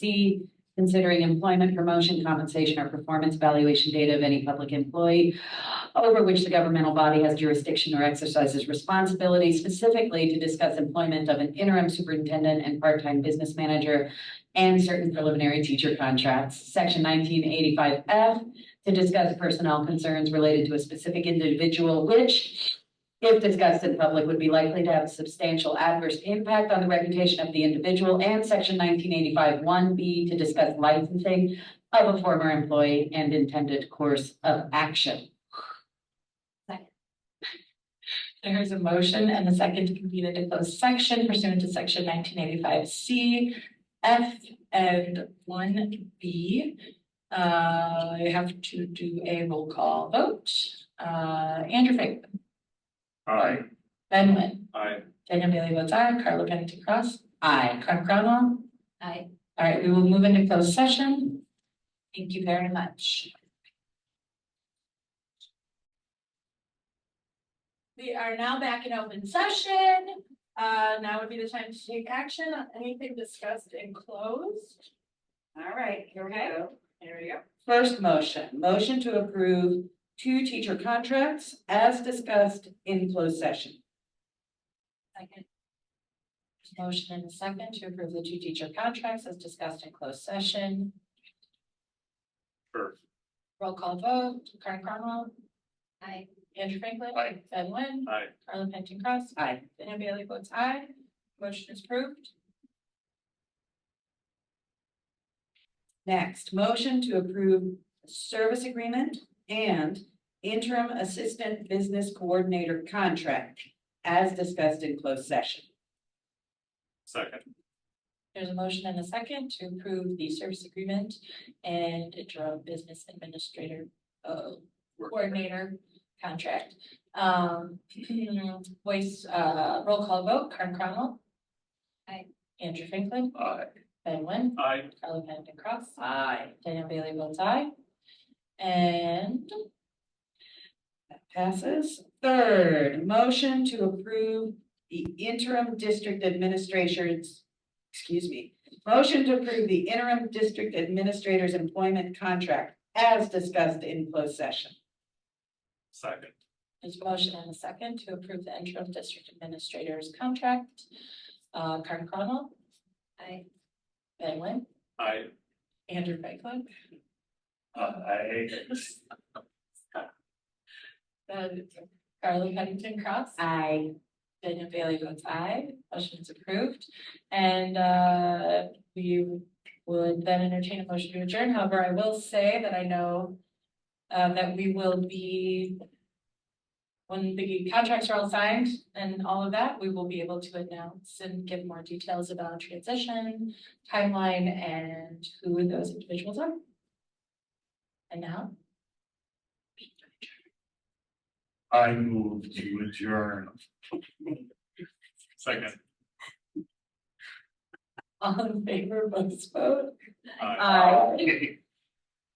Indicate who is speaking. Speaker 1: D, considering employment, promotion, compensation, or performance evaluation data of any public employee over which the governmental body has jurisdiction or exercises responsibility specifically to discuss employment of an interim superintendent and part-time business manager and certain preliminary teacher contracts. Section nineteen eighty-five F, to discuss personnel concerns related to a specific individual which, if discussed in public, would be likely to have a substantial adverse impact on the reputation of the individual. And section nineteen eighty-five one B, to discuss licensing of a former employee and intended course of action.
Speaker 2: There is a motion and a second to convene into closed section pursuant to section nineteen eighty-five C, F, and one B. Uh, I have to do a roll call vote. Uh, Andrew Fink,
Speaker 3: Aye.
Speaker 2: Ben Wynn,
Speaker 3: Aye.
Speaker 2: Daniel Bailey votes aye, Carla Pennington Cross,
Speaker 1: Aye.
Speaker 2: Craig Brownell.
Speaker 1: Aye.
Speaker 2: All right, we will move into closed session. Thank you very much. We are now back in open session. Uh, now would be the time to take action on anything discussed in closed.
Speaker 1: All right, here we go.
Speaker 2: There we go.
Speaker 1: First motion, motion to approve two teacher contracts as discussed in closed session.
Speaker 2: Second. Motion and a second to approve the two teacher contracts as discussed in closed session.
Speaker 3: Sure.
Speaker 2: Roll call vote, Karen Cromwell. Aye. Andrew Franklin.
Speaker 3: Aye.
Speaker 2: Ben Lynn.
Speaker 3: Aye.
Speaker 2: Carla Pennington Cross.
Speaker 1: Aye.
Speaker 2: Daniel Bailey votes aye. Motion is approved.
Speaker 1: Next, motion to approve service agreement and interim assistant business coordinator contract as discussed in closed session.
Speaker 3: Second.
Speaker 2: There's a motion and a second to approve the service agreement and interim business administrator uh, coordinator contract. Um, voice, uh, roll call vote, Karen Cromwell. Aye. Andrew Franklin,
Speaker 3: Aye.
Speaker 2: Ben Wen,
Speaker 3: Aye.
Speaker 2: Carla Pennington Cross,
Speaker 1: Aye.
Speaker 2: Daniel Bailey votes aye. And
Speaker 1: That passes. Third, motion to approve the interim district administrations, excuse me, motion to approve the interim district administrator's employment contract as discussed in closed session.
Speaker 3: Second.
Speaker 2: there's a motion and a second to approve the interim district administrator's contract. Uh, Karen Cromwell. Aye. Ben Wen,
Speaker 3: Aye.
Speaker 2: Andrew Franklin.
Speaker 3: uh, Aye.
Speaker 2: Then Carly Pennington Cross,
Speaker 1: Aye.
Speaker 2: Daniel Bailey votes aye, motion is approved. And uh, we would then entertain a motion to adjourn, however, I will say that I know um, that we will be when the contracts are all signed and all of that, we will be able to announce and give more details about transition, timeline, and who those individuals are. And now,
Speaker 3: I move to adjourn. Second.
Speaker 2: all in favor, votes vote.
Speaker 3: Aye.
Speaker 2: Aye.
Speaker 3: Okay.